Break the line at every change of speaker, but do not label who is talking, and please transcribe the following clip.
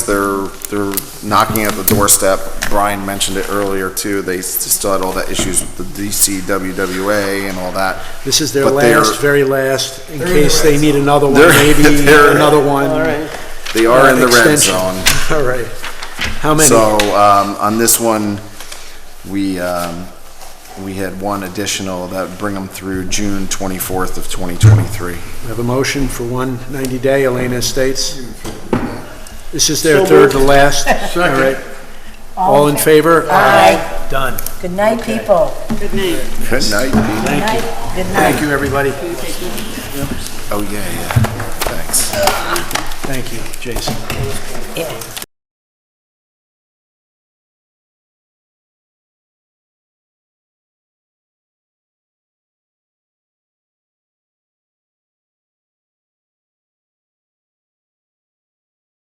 They're, they're knocking at the doorstep. Brian mentioned it earlier too. They s- still had all the issues with the DCWWA and all that.
This is their
But they're-
last, very last, in
They're in the
case they
red
need another one,
They're-
maybe
they're-
another one.
All right.
They are in the red
Extension.
zone.
All right. How many?
So, um, on this one, we, um, we had one additional that would bring them through June twenty-fourth of twenty twenty-three.
We have a motion for one 90-day, Elena Estates. This is their
So
third
moved.
to last. All right. All in favor?
Aye.
Done.
Good night, people.
Good night, Pete.
Good night. Good night.
Thank you, everybody.
Oh, yeah, yeah. Thanks.
Thank you, Jason.